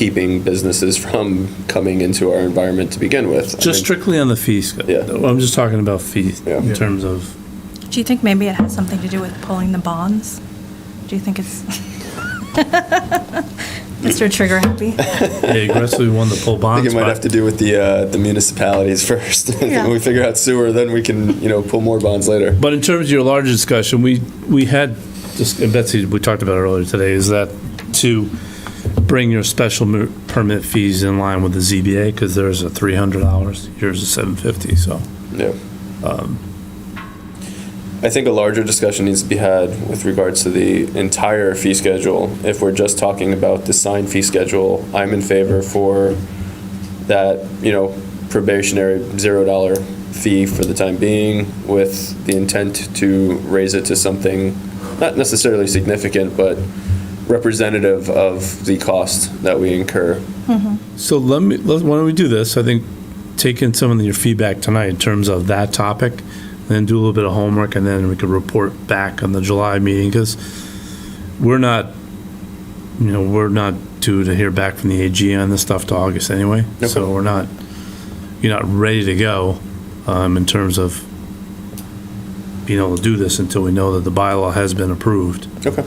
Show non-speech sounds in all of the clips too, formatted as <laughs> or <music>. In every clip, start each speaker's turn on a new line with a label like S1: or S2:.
S1: keeping businesses from coming into our environment to begin with. I
S2: Just
S1: mean,
S2: strictly on the fees.
S1: Yeah.
S2: I'm just talking about fees
S1: Yeah.
S2: in terms of,
S3: Do you think maybe it has something to do with pulling the bonds? Do you think it's? <laughs> Mr. Trigger happy?
S2: they aggressively won
S1: <laughs>
S2: the pull
S1: I
S2: bonds.
S1: think it might have to do with the, uh, the municipalities <laughs> first.
S3: Yeah.
S1: When we figure out sewer, then we can, you know, pull more bonds later.
S2: But in terms of your larger discussion, we, we had, just- and Betsy, we talked about it earlier today, is that to bring your special mer- permit fees in line with the ZBA, because there's a $300, yours is 750, so.
S1: Yeah. Um, I think a larger discussion needs to be had with regards to the entire fee schedule. If we're just talking about the sign fee schedule, I'm in favor for that, you know, probationary zero dollar fee for the time being with the intent to raise it to something not necessarily significant, but representative of the cost that we incur.
S2: So let me, let- why don't we do this? I think take in some of your feedback tonight in terms of that topic, then do a little bit of homework, and then we could report back on the July meeting, because we're not, you know, we're not due to hear back from the AG on this stuff to August anyway. So
S1: Okay.
S2: we're not, you're not ready to go um, in terms of being able to do this until we know that the bylaw has been approved.
S1: Okay,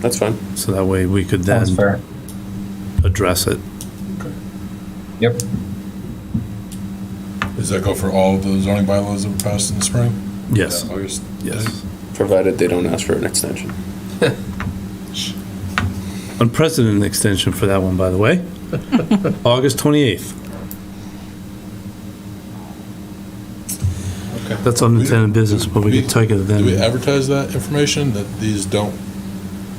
S1: that's fine.
S2: So that way we could
S4: Sounds
S2: then
S4: fair.
S2: address it.
S4: Yep.
S5: Does that go for all the zoning bylaws that were passed in the spring?
S2: Yes,
S5: August?
S2: yes.
S1: Provided they don't ask for an extension.
S2: Unprecedented extension for that one, by the
S5: <laughs>
S2: way. August 28th.
S5: Okay.
S2: That's unintended business, but we
S5: We-
S2: could take it
S5: Do we
S2: then.
S5: advertise that information, that these don't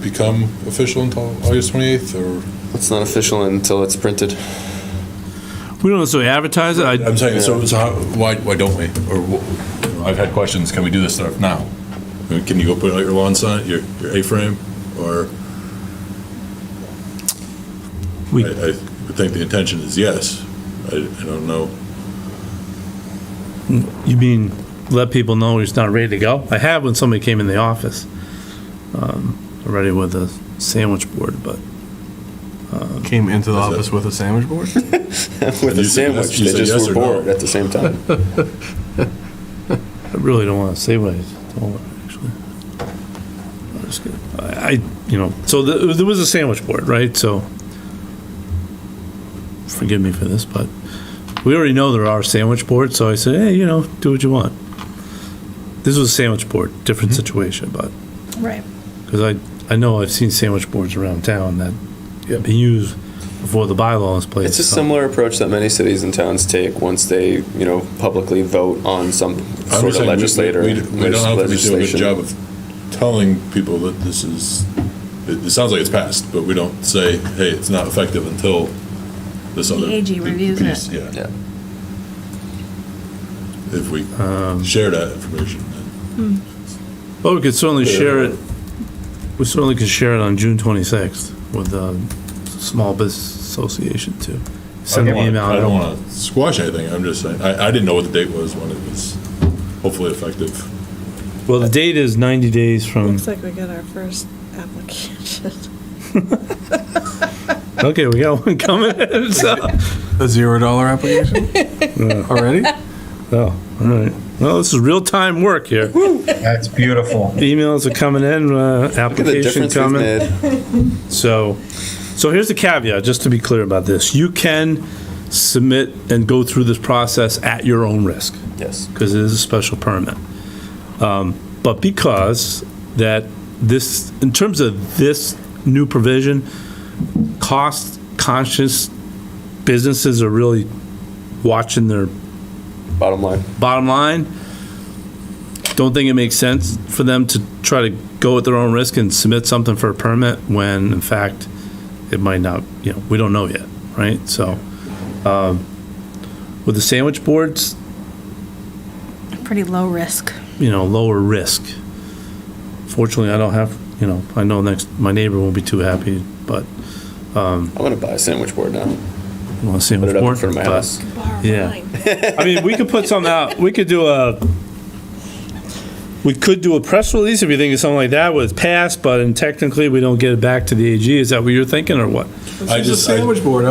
S5: become official until August 28th, or?
S1: It's not official until it's printed. <laughs>
S2: We don't necessarily advertise it. I-
S5: I'm saying, so, so how, why, why don't we? Or, wh- you know, I've had questions, can we do this stuff now? I mean, Can you go put out your lawn sign, your, your A-frame, or?
S2: We-
S5: I, I would think the intention is yes. I, I don't know.
S2: You mean, let people know he's not ready to go? I have when somebody came in the office, um, already with a sandwich board, but
S6: Came into the
S5: Is that-
S6: office with a sandwich board?
S1: with
S5: And
S1: a
S5: you said
S1: sandwich.
S5: yes- you
S1: They
S5: said
S1: just
S5: yes
S1: were
S5: or no?
S1: bored at the same
S5: <laughs>
S1: time.
S2: I really don't want to say what I told her, actually. I'm just gonna- I, I- you know, so the- there was a sandwich board, right? So, forgive me for this, but we already know there are sandwich boards, so I said, hey, you know, do what you want. This was a sandwich board, different
S1: Mm-hmm.
S2: situation, but,
S3: Right.
S2: because I, I know I've seen sandwich boards around town that have been used before the bylaws place.
S1: It's a
S2: so-
S1: similar approach that many cities and towns take once they, you know, publicly vote on some
S5: I'm
S1: sort
S5: just
S1: of
S5: saying we-
S1: legislator.
S5: We we don't know if we do a good
S1: legislation.
S5: job of telling people that this is, it, it sounds like it's passed, but we don't say, hey, it's not effective until this other.
S3: AG
S5: p-
S3: reviews it.
S5: piece," Yeah.
S1: Yeah.
S5: If we share that information, then
S2: Well, we could certainly share it, we certainly could share it on June 26th with the Small Business Association too. Send
S5: I
S2: an
S5: don't wanna-
S2: email.
S5: I don't want to squash anything, I'm just saying, I, I didn't know what the date was when it was hopefully effective.
S2: Well, the date is 90 days from,
S7: Looks like we got our first application.
S2: okay, we got one coming. <laughs> So-
S6: A zero dollar application? Already?
S2: Oh, all right. Well, this is real-time work here.
S4: That's beautiful.
S2: Emails are coming in, uh,
S1: Look at the
S2: application
S1: difference we've
S2: coming.
S1: made.
S2: So, so here's the caveat, just to be clear about this. You can submit and go through this process at your own risk.
S1: Yes.
S2: because it is a special permit. Um, But because that this, in terms of this new provision, cost conscious businesses are really watching their
S1: Bottom line.
S2: bottom line. Don't think it makes sense for them to try to go at their own risk and submit something for a permit when in fact it might not, you know, we don't know yet, right? So, um, with the sandwich boards,
S3: Pretty low risk.
S2: you know, lower risk. Fortunately, I don't have, you know, I know next, my neighbor won't be too happy, but,
S1: I'm gonna buy a sandwich board now.
S2: well, see.
S1: Put it up in front of my house.
S2: Yeah. I mean, we could put something out, we could do a, we could do a press release if you think of something like that was passed, but and technically we don't get it back to the AG. Is that what you're thinking or what?
S5: I
S6: It's a
S5: just, I-
S6: sandwich board.